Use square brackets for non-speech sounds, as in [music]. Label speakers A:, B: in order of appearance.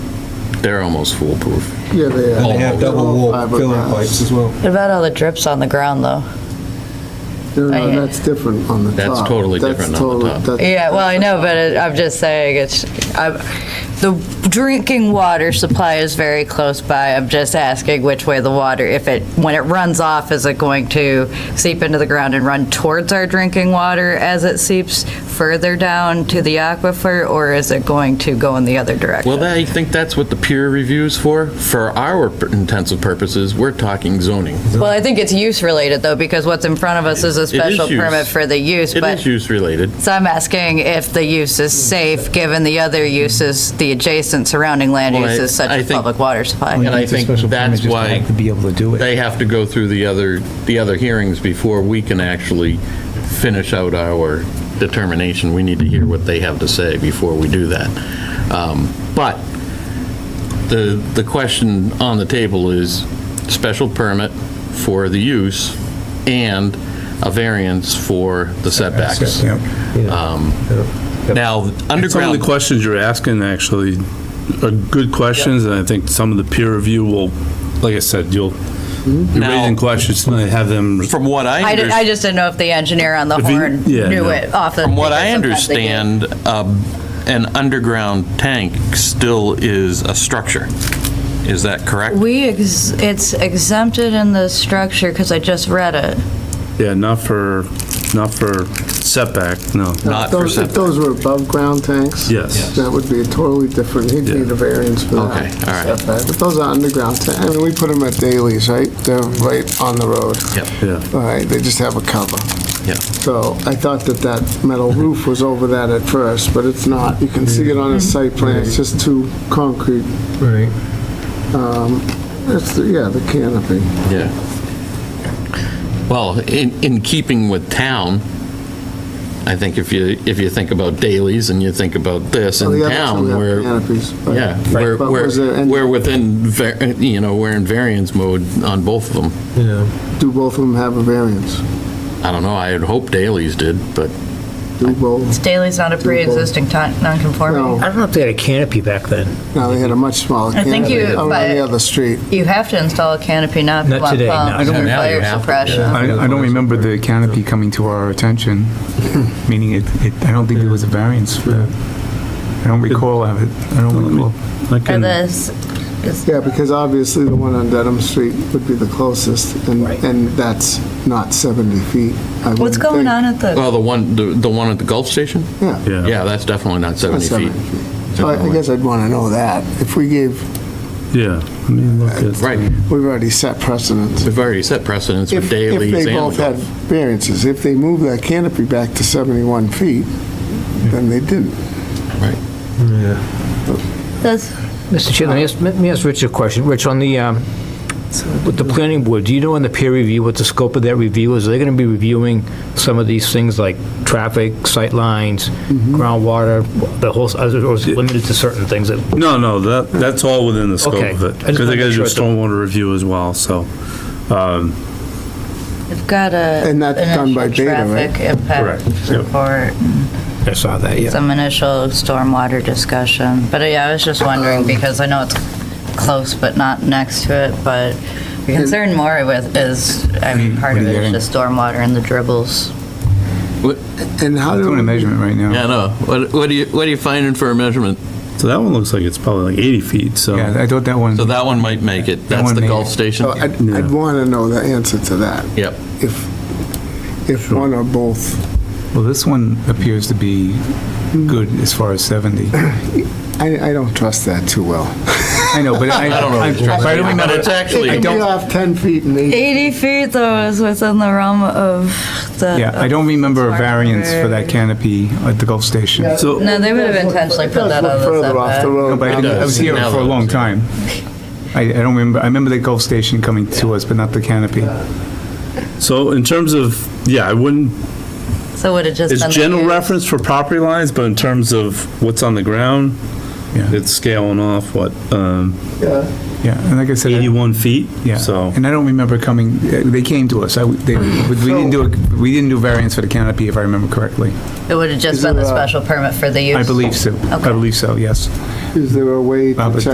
A: They're almost foolproof.
B: Yeah, they
C: And they have double wall filling
B: Fiberglass.
C: pipes as well.
D: What about all the drips on the ground, though?
B: No, no,
D: I-
B: uh, that's different on the top.
A: That's totally different on the
B: totally-
A: top.
B: that's-
D: Yeah, well, I know, but it- I'm just saying, it's, I'm- the drinking water supply is very close by. I'm just asking which way the water, if it, when it runs off, is it going to seep into the ground and run towards our drinking water as it seeps further down to the aquifer, or is it going to go in the other direction?
A: Well, that- I think that's what the peer review's for. For our pur- intensive purposes, we're talking zoning.
D: Well, I think it's use-related, though, because what's in front of us is
A: It
D: a
A: is
D: special
A: use.
D: permit for the use,
A: It
D: but...
A: is use-related.
D: So I'm asking if the use is safe, given the other uses, the adjacent surrounding land
A: Well, I-
D: uses such
A: I
D: as
A: think-
D: public water supply.
A: And I think that's why
C: To be able to do it.
A: they have to go through the other, the other hearings before we can actually finish out our determination. We need to hear what they have to say before we do that. Um, But the, the question on the table is special permit for the use and a variance for the setbacks.
C: Yep.
A: Um, Now,
E: Some of the
A: underground,
E: questions you're asking actually are good questions, and I think some of the peer review will, like I said, you'll, you're
A: Now-
E: raising questions, and I have them.
A: from what I
D: I,
A: understand.
D: did- I just didn't know if the engineer on the
E: If he-
D: horn
E: yeah,
D: knew
E: no.
D: it off the.
A: From what I
D: because sometimes they do.
A: understand, um, an underground tank still is a structure. Is that correct?
D: We, ex- it's exempted in the structure, because I just read it.
E: Yeah, not for, not for setback, no.
A: Not for
B: Those- If
A: setback.
B: those were above-ground tanks?
E: Yes.
B: That would be a totally different, he'd
E: Yeah.
B: need a variance for that.
A: Okay, all right.
B: setback. But those are underground tanks, I mean, we put them at Daly's, right? They're right on the road.
A: Yep.
E: Yeah.
B: All right, they just have a cover.
A: Yeah.
B: So I thought that that metal roof was over that at first, but it's not. You can see it on the site plan, it's just two concrete, Um,
C: Right.
B: it's, the- yeah, the canopy.
A: Yeah. Well, in, in keeping with town, I think if you, if you think about dailies and you think about this
B: Well,
A: in
B: the other two
A: town,
B: have
A: we're,
B: Canopies. but-
A: yeah, we're,
B: But was there
A: we're
B: any-
A: we're within, var- you know, we're in variance mode on both of them.
C: Yeah.
B: Do both of them have a variance?
A: I don't know, I had hoped dailies did, but
B: Do both?
D: Staley's not a pre-existing ti- non-conforming.
B: No,
F: I don't know if they had a canopy back then.
B: no, they had a much smaller
D: I think
B: canopy
D: you-
B: around
D: but-
B: the other street.
D: You have to install a canopy, not
F: Not
D: blunt
F: today, no.
D: pumps
A: Yeah,
D: for
A: now you
D: fire
A: have to,
D: suppression.
C: yeah.
G: I I don't remember the canopy coming to our [laughs] attention, meaning it, it- I don't think there was a variance for that. I don't recall of it. I don't recall.
E: I
D: Or
E: can-
D: this,
B: Yeah, because obviously the one on Dedham Street would be the closest, and, and that's not 70 feet. I
D: what's
B: wouldn't
D: going
B: think.
D: on at the,
A: Well, the one, the the one at the Gulf Station?
B: Yeah.
A: Yeah, that's definitely not
B: That's
A: 70 feet.
B: 70 feet. So I I guess I'd want to know that. If we gave,
E: Yeah. Let me look at-
A: Right,
B: we've already set precedents.
A: we've already set precedents
B: If
A: with
B: if they
A: dailies and
B: both had
A: the
B: variances, if they moved that canopy back to 71 feet, then they didn't.
D: this,
F: Mr. Chair, let me ask- let me ask Rich a question. Rich, on the, um, with the planning board, do you know in the peer review what the scope of that review is? Are they going to be reviewing some of these things like traffic, sightlines, groundwater, the whole, or is it limited to certain things that
E: No, no, that, that's all within the scope
F: Okay.
E: of it.
F: I just
E: Because
F: wanna
E: they gotta do
F: make
E: a
F: sure it's the-
E: stormwater review as well, so.
D: we've got a.
B: And that's done by
D: initial
B: Beta, right?
D: Traffic impact
E: Correct, yep.
D: report.
F: I saw that, yeah.
D: some initial stormwater discussion. But uh, yeah, I was just wondering, because I know it's close but not next to it, but the concern more with is, I mean, part of it
G: What are you
D: is
G: getting?
D: just stormwater and the dribbles.
B: And how
G: I'm
B: do,
G: doing a measurement right now.
A: Yeah, no, what what do you, what are you finding for a measurement?
E: So that one looks like it's probably like 80 feet, so.
G: Yeah, I thought that one,
A: So that one might make it, that's
G: one
A: the
G: may-
A: Gulf Station?
B: so I'd, I'd want to know the answer to that.
A: Yep,
B: If, if one or both
G: well, this one appears to be good as far as 70.
B: I, I don't trust that too well.
G: I know, but I,
A: [laughs] I don't know.
G: I- but I don't
A: But
G: remember.
A: it's
B: It
A: actually,
B: could be off 10 feet and 8.
D: 80 feet though is within the realm of the.
G: Yeah, I don't remember a
D: Sorry.
G: variance for that canopy at the Gulf Station. No,
E: So,
D: No, they would have intentionally put that on the
B: Further off the
D: setback.
B: road.
G: but I didn't- I was here for a long time. I, I don't remember, I remember the Gulf Station coming to us, but not the canopy.
E: so in terms of, yeah, I wouldn't
D: So would it just
E: It's
D: been.
E: general
D: the-
E: reference for property lines, but in terms of what's on the ground,
G: Yeah.
E: it's scaling off, what, um,
G: Yeah, and like I said. I-
E: 81 feet?
G: Yeah,
E: So,
G: and I don't remember coming, uh, they came to us, I, they, but we didn't do, a- we didn't do variance for the canopy, if I remember correctly.
D: It would have just
B: Is it
D: been the
B: a-
D: special permit for the use.
G: I believe so, I believe so, yes.
B: Is there a way to
G: Robert.
B: check